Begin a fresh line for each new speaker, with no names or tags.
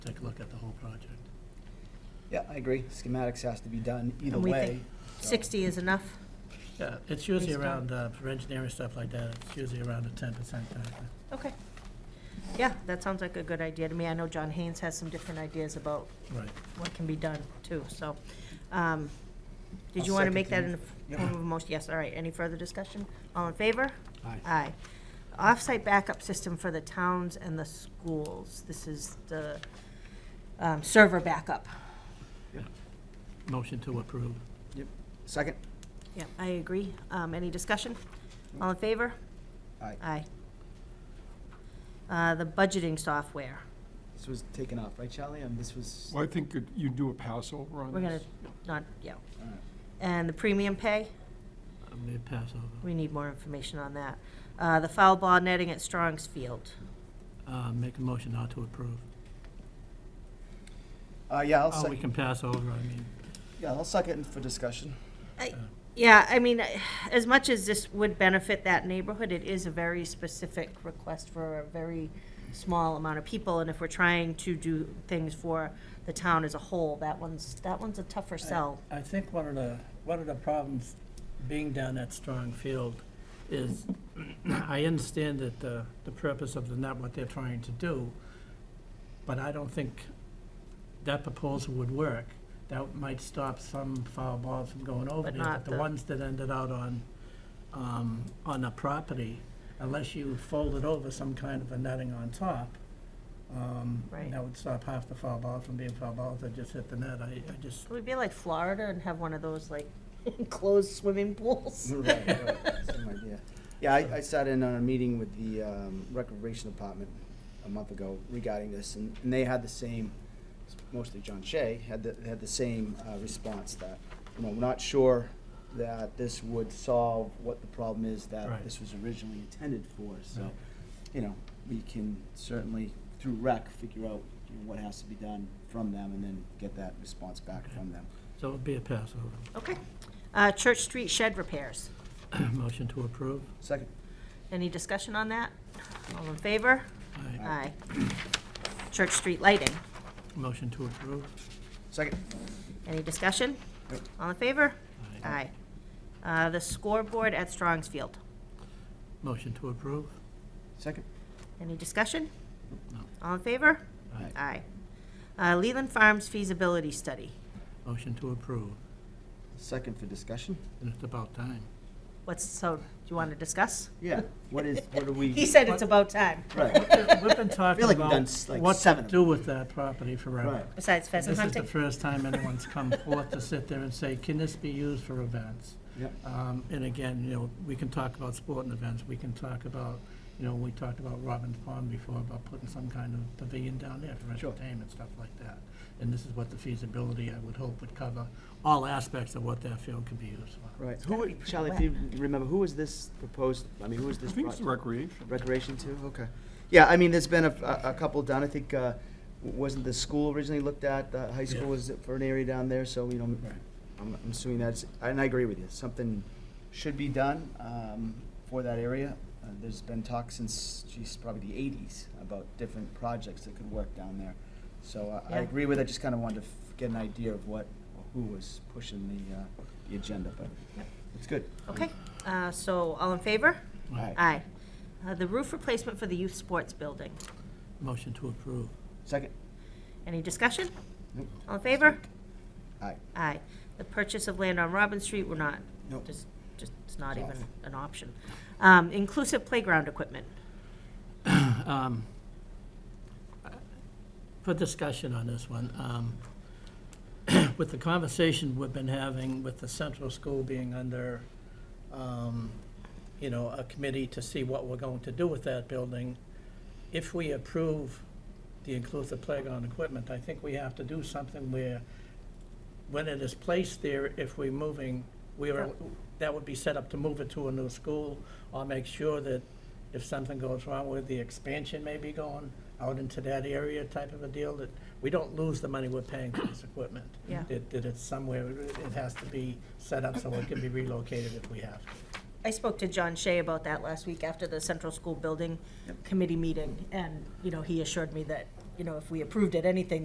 Yeah, I agree. Schematics has to be done either
And we
way.
think
so-
60 is enough?
Yeah, it's usually
Based on-
around, uh, for engineering stuff like that, it's usually around a ten percent factor.
Okay. Yeah, that sounds like a good idea to me. I know John Haynes has some different ideas about
Right.
what can be done, too, so. um, Did
I'll
you want to
second
make that
the-
in the form of a motion? Yes, all right. Any further discussion? All in favor?
Aye.
Aye. Off-site backup system for the towns and the schools. This is the um, server backup.
Motion to approve.
Yep. Second?
Yeah, I agree. Um, Any discussion? All in favor?
Aye.
Aye. Uh, The budgeting software.
This was taken off, right, Charlie? And this was,
Well, I think you- you do a pass over on
We're gonna,
this.
not, yeah.
Alright.
And the premium pay,
I'm gonna Uh, pass over.
we need more information on that. Uh, the foul ball netting at Strong's Field.
Uh, make a motion not to approve.
uh, yeah, I'll
Oh, we
second,
can pass over, I mean,
yeah, I'll second for discussion.
Yeah, I mean, as much as this would benefit that neighborhood, it is a very specific request for a very small amount of people, and if we're trying to do things for the town as a whole, that one's, that one's a tougher sell.
I think one of the, one of the problems being down that strong field is, I understand that the, the purpose of the net, what they're trying to do, but I don't think that proposal would work. That might stop some foul balls from going over
But
there,
not
but the
the-
ones that ended out on, um, on a property, unless you folded over some kind of a netting on top, um,
Right.
that would stop half the foul balls from being foul balls that just hit the net. I, I just,
It would be like Florida and have one of those like enclosed swimming pools.
Right, right, same idea. Yeah, I, I sat in on a meeting with the um, Recreation Department a month ago regarding this, and, and they had the same, mostly John Shea, had the, had the same uh, response that, you know, we're not sure that this would solve what the problem is that
Right.
this was originally intended for, so,
Right.
you know, we can certainly, through rec, figure out, you know, what has to be done from them, and then get that response back from them.
so it would be a pass over.
Okay. Uh, Church Street shed repairs.
Motion to approve.
Second,
Any discussion on that? All in favor?
Aye.
Aye. Church Street lighting.
Motion to approve.
second,
Any discussion? All in favor?
Aye.
Aye. Uh, The scoreboard at Strong's Field.
Motion to approve.
second,
Any discussion?
No.
All in favor?
Aye.
Aye. Uh, Leland Farms feasibility study.
Motion to approve.
second for discussion.
And it's about time.
What's, so, do you want to discuss?
Yeah, what is, what do we?
He said it's about time,
Right,
We've been talking
feel like we've done
about
s- like
what to
seven of
do with that property
right.
forever.
besides pheasant
This is the
hunting.
first time anyone's come forth to sit there and say, can this be used for events?
Yep.
Um, And again, you know, we can talk about sporting events, we can talk about, you know, we talked about Robbins Pond before, about putting some kind of pavilion down there for
Sure.
entertainment, stuff like that. And this is what the feasibility, I would hope, would cover all aspects of what that field could be used for.
Right, who,
be
would-
pretty
Charlie, if you remember, who was this proposed, I mean, who was
I
this
think it's the
brought-
recreation.
recreation to? Okay. Yeah, I mean, there's been a, a- a couple done, I think, uh, w- wasn't the school originally looked at, the high school
Yeah.
was for an area down there, so, you know,
Right.
I'm I'm assuming that's, and I agree with you, something should be done um, for that area. Uh, There's been talk since, geez, probably the eighties about different projects that could work down there. So I- I
Yeah.
agree with, I just kind of wanted to f- get an idea of what, who was pushing the, uh, the agenda, but it's good.
Okay, uh, so all in favor?
Aye.
Aye. Uh, The roof replacement for the youth sports building.
Motion to approve.
Second?
Any discussion?
Nope.
All in favor?
Aye.
Aye. The purchase of land on Robin Street, we're not,
Nope.
just, just, it's not
It's
even
off.
an option. Um, Inclusive playground equipment.
um, for discussion on this one, um, with the conversation we've been having with the central school being under, um, you know, a committee to see what we're going to do with that building, if we approve the inclusive playground equipment, I think we have to do something where, when it is placed there, if we're moving, we are, that would be set up to move it to a new school, or make sure that if something goes wrong with the expansion maybe going out into that area type of a deal, that we don't lose the money we're paying for this equipment.
Yeah.
That, that it's somewhere, it has to be set up so it can be relocated if we have to.
I spoke to John Shea about that last week after the Central School Building Committee meeting, and, you know, he assured me that, you know, if we approved it, anything,